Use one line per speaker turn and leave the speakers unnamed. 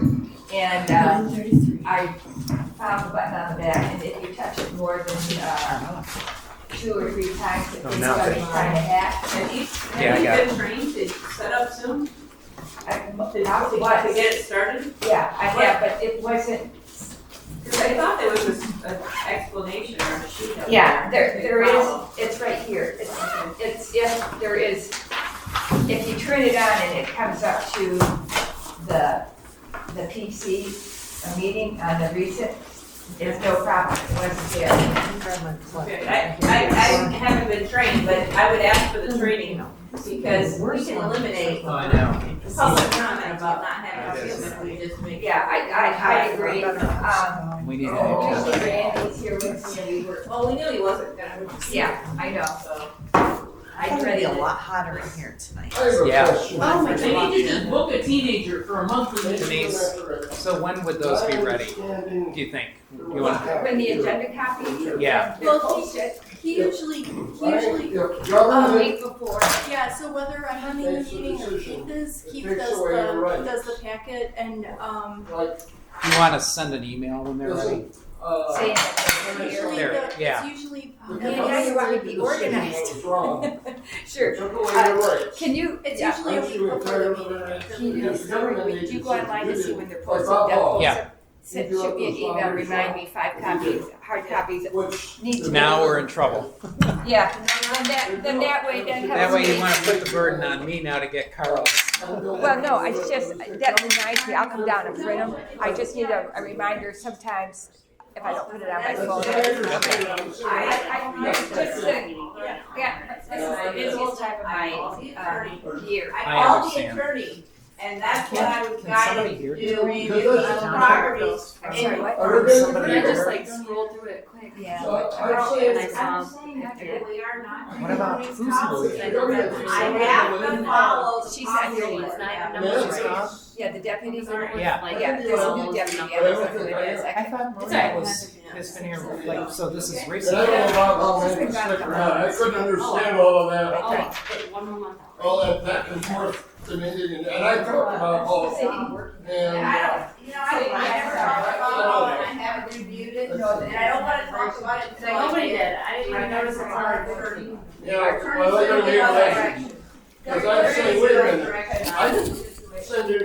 And, uh, I found the button on the back, and if you touch it more than, uh, two or three times, it
Oh,
thinks
now
about
it's-
trying to hack.
Have you,
Yeah, I
have you
got
been trained to set up Zoom?
I-
To,
I'll
to
see
what, to
what's-
get it started?
Yeah, I have, but it wasn't,
Because I thought there was an explanation or a sheet up there.
yeah, there,
to
there is,
follow.
it's right here. It's, it's, if there is, if you turn it on and it comes up to the, the PC, a meeting on the recent, there's no problem, it wasn't there.
Okay, I, I, I haven't been trained, but I would ask for the training because we can eliminate
I know.
public comment about not having a Zoom if we just make.
Yeah, I, I, I agree. Um,
We need an
Oh,
agenda.
Randy's here with me, we were,
Well, we knew he wasn't gonna.
yeah, I know,
So.
I read it.
lot hotter in here tonight.
I have a
Yeah.
question.
Oh my
They need to just book a teenager for a monthly
Denise. So when would those be ready, do you think? You want,
When the agenda copy.
Yeah.
Well, he should, he usually, he usually,
If
A
government
week before,
yeah, so whether I'm running the meeting or Keith is, Keith does the, does the packet and, um,
like
you want to send an email when they're ready?
doesn't, uh,
saying
usually
There,
the, it's
yeah.
usually. um,
the
Oh, Yeah, now you want me to be
constitution was
organized.
wrong.
sure,
Took away your rights.
can you,
It's
yeah,
usually a
Aren't
week
you
before the
entitled to
meeting.
that?
can you,
Because
every
government
week, do you go
agencies
online to
do
see
it
when they're
by
posted?
law.
They'll
Yeah.
Send, shoot me an email, remind me five copies, hard copies,
Which.
need to.
Now we're in trouble.
Yeah, then that, then that way, that
That
helps
way
me.
you want to put the burden on me now to get Carl.
Well, no, I just, that reminds me, I'll come down and print them, I just need a, a reminder sometimes, if I don't put it on my phone. I, I, it's just a, yeah, it's, it's all type of my, uh, year.
I
I
called the
understand.
attorney and that's what I
Can
was
somebody
guided
hear
to
you?
do, review the properties.
I'm sorry, what?
I just like.
scrolled through it quick.
Yeah.
I'd
And I
say,
saw that they really are not
What about
doing
food
policies.
solutions?
I have to follow the
She's not here yet.
policy. Yeah.
Yes.
Yeah, the deputies are,
Yeah.
yeah, there's a new deputy, yeah, that's what it is. I
I
can-
thought Maria was, has been here, like, so this is
And I don't know
recent.
about how many stick around, I
Oh,
couldn't understand all of that, all that back and forth to me, and I talked about all,
And
and. uh,
I don't, you know, I, I never talked about it, and I haven't reviewed it, and I don't wanna talk about it today.
I
I noticed it's our attorney. Our
Yeah,
attorney's
well, they're
going
gonna
the
be
other
like,
direction.
Because I'm saying, wait a minute,
Direction.
I didn't send you